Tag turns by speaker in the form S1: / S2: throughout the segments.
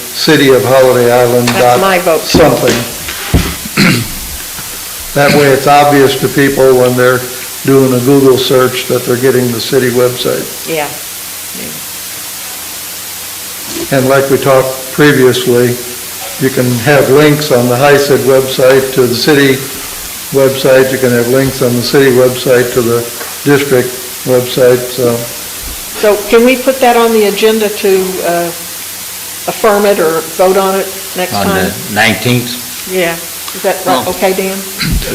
S1: City of Holiday Island
S2: That's
S1: dot
S2: my vote.
S1: something. That way it's obvious to people when they're doing a Google search that they're getting the city website.
S2: Yeah.
S1: And like we talked previously, you can have links on the HICID website to the city website, you can have links on the city website to the district website, so
S2: So can we put that on the agenda to uh, affirm it or vote on it next
S3: on the
S2: time?
S3: 19th.
S2: Yeah. Is that right?
S4: No.
S1: Oh.
S2: okay, Dan?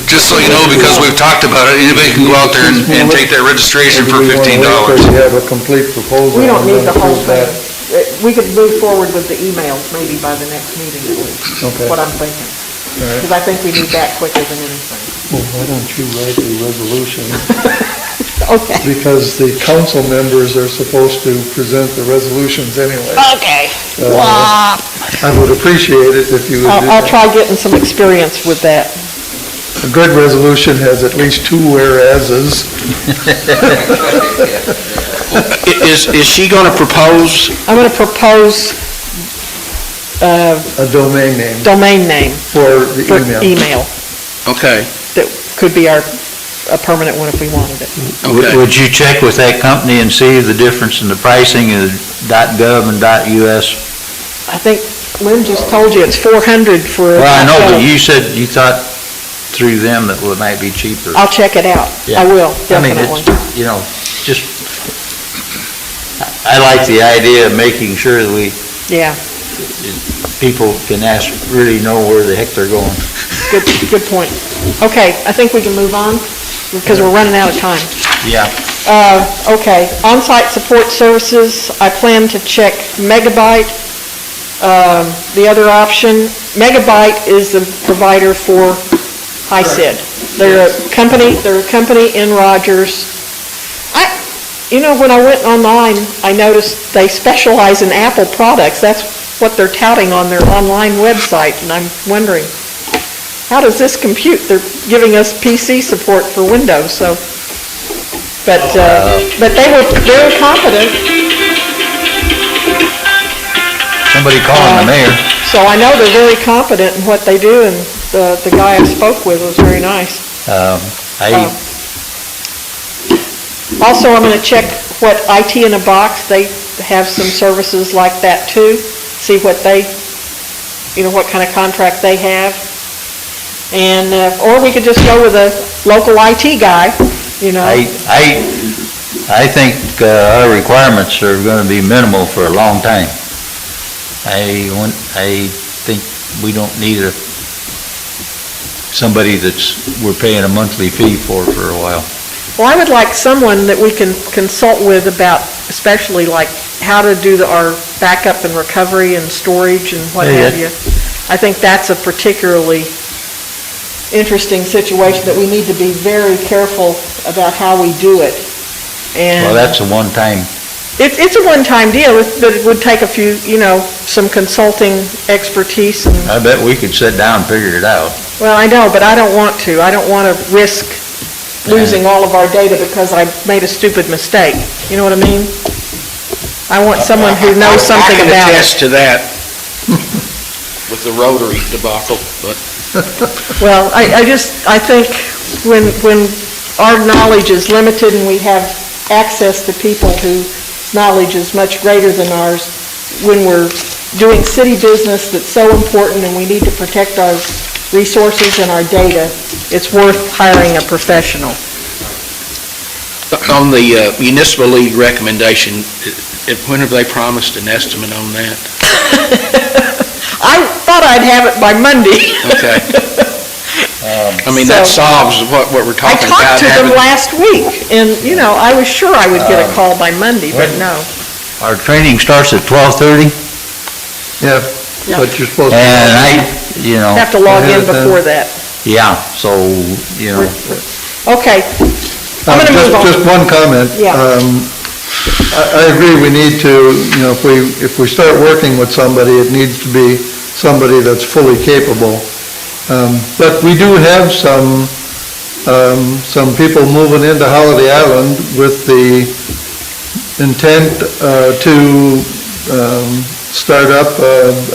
S4: Just so you know, because we've talked about it, anybody can go out there and and take their registration
S1: maybe
S4: for
S1: we want to
S4: fifteen
S1: wait till
S4: dollars.
S1: you have a complete proposal.
S2: We don't
S1: and
S2: need
S1: then
S2: the whole
S1: approve
S2: thing.
S1: that.
S2: Uh, We could move forward with the emails maybe by the next meeting at least,
S1: Okay.
S2: what I'm thinking.
S1: right.
S2: Because I think we need that quicker than anything.
S1: Well, why don't you write the resolution?
S2: Okay.
S1: Because the council members are supposed to present the resolutions anyway.
S2: Okay.
S1: Uh, I would appreciate it if you would do
S2: I'll, I'll
S1: that.
S2: try getting some experience with that.
S1: A good resolution has at least two whereases.
S5: Is, is she going to propose?
S2: I'm going to propose uh,
S1: a domain name
S2: domain name
S1: for the
S2: for
S1: email.
S2: email.
S5: Okay,
S2: That could be our, a permanent one if we wanted it.
S5: okay.
S3: Would you check with that company and see the difference in the pricing of .gov and .us?
S2: I think Lynn just told you it's 400 for.
S3: Well, I know, but you said you thought through them that it might be cheaper.
S2: I'll check it out.
S3: Yeah.
S2: I will,
S3: I mean,
S2: Oh, definitely.
S3: it's, you know, just, I like the idea of making sure that we,
S2: Yeah,
S3: people can ask, really know where the heck they're going.
S2: good, good point. Okay, I think we can move on because we're running out of time.
S3: Yeah.
S2: Uh, okay, on-site support services, I plan to check Megabyte. Um, the other option, Megabyte is the provider for HICID. They're a company, they're a company in Rogers. I, you know, when I went online, I noticed they specialize in Apple products. That's what they're touting on their online website, and I'm wondering, how does this compute? They're giving us PC support for Windows, so. But, uh, but they were very competent,
S3: Somebody calling the mayor.
S2: so I know they're very competent in what they do, and the, the guy I spoke with was very nice.
S3: Um, I,
S2: Also, I'm gonna check what IT in a Box, they have some services like that too, see what they, you know, what kind of contract they have. And, uh, or we could just go with a local IT guy, you know.
S3: I, I, I think uh, our requirements are gonna be minimal for a long time. I want, I think we don't need a, somebody that's, we're paying a monthly fee for, for a while.
S2: Well, I would like someone that we can consult with about, especially like how to do the- our backup and recovery and storage and what
S3: Yeah,
S2: have you.
S3: yeah.
S2: I think that's a particularly interesting situation that we need to be very careful about how we do it. And
S3: Well, that's a one-time,
S2: it's, it's a one-time deal, but it would take a few, you know, some consulting expertise and
S3: I bet we could sit down and figure it out.
S2: Well, I know, but I don't want to. I don't want to risk losing all of our data because I made a stupid mistake. You know what I mean? I want someone who
S5: I- I-
S2: knows something
S5: I
S2: about
S5: can
S2: it.
S5: attest to that with the Rotary debacle, but
S2: Well, I, I just, I think when, when our knowledge is limited and we have access to people whose knowledge is much greater than ours, when we're doing city business that's so important and we need to protect our resources and our data, it's worth hiring a professional.
S5: on the uh, municipal league recommendation, i- i- when have they promised an estimate on that?
S2: I thought I'd have it by Monday.
S5: Okay. I mean, that
S2: So-
S5: solves what, what we're
S2: I
S5: talking about.
S2: talked to them
S5: having- Um,
S2: last week, and, you know, I was sure I would get a call by Monday, but
S3: When?
S2: no.
S3: Our training starts at twelve-thirty,
S1: Yeah,
S2: Yeah.
S1: but you're supposed
S3: and
S1: to,
S3: I, you
S5: Oh,
S3: know,
S2: Have to log in
S5: uh,
S1: Yeah, then-
S2: before that.
S3: yeah, so, you know,
S2: Okay, I'm
S1: Uh,
S2: gonna
S1: just,
S2: move on.
S1: just one comment.
S2: Yeah.
S1: Um, I, I agree, we need to, you know, if we, if we start working with somebody, it needs to be somebody that's fully capable. Um, But we do have some, um, some people moving into Holiday Island with the intent uh, to um, start up uh,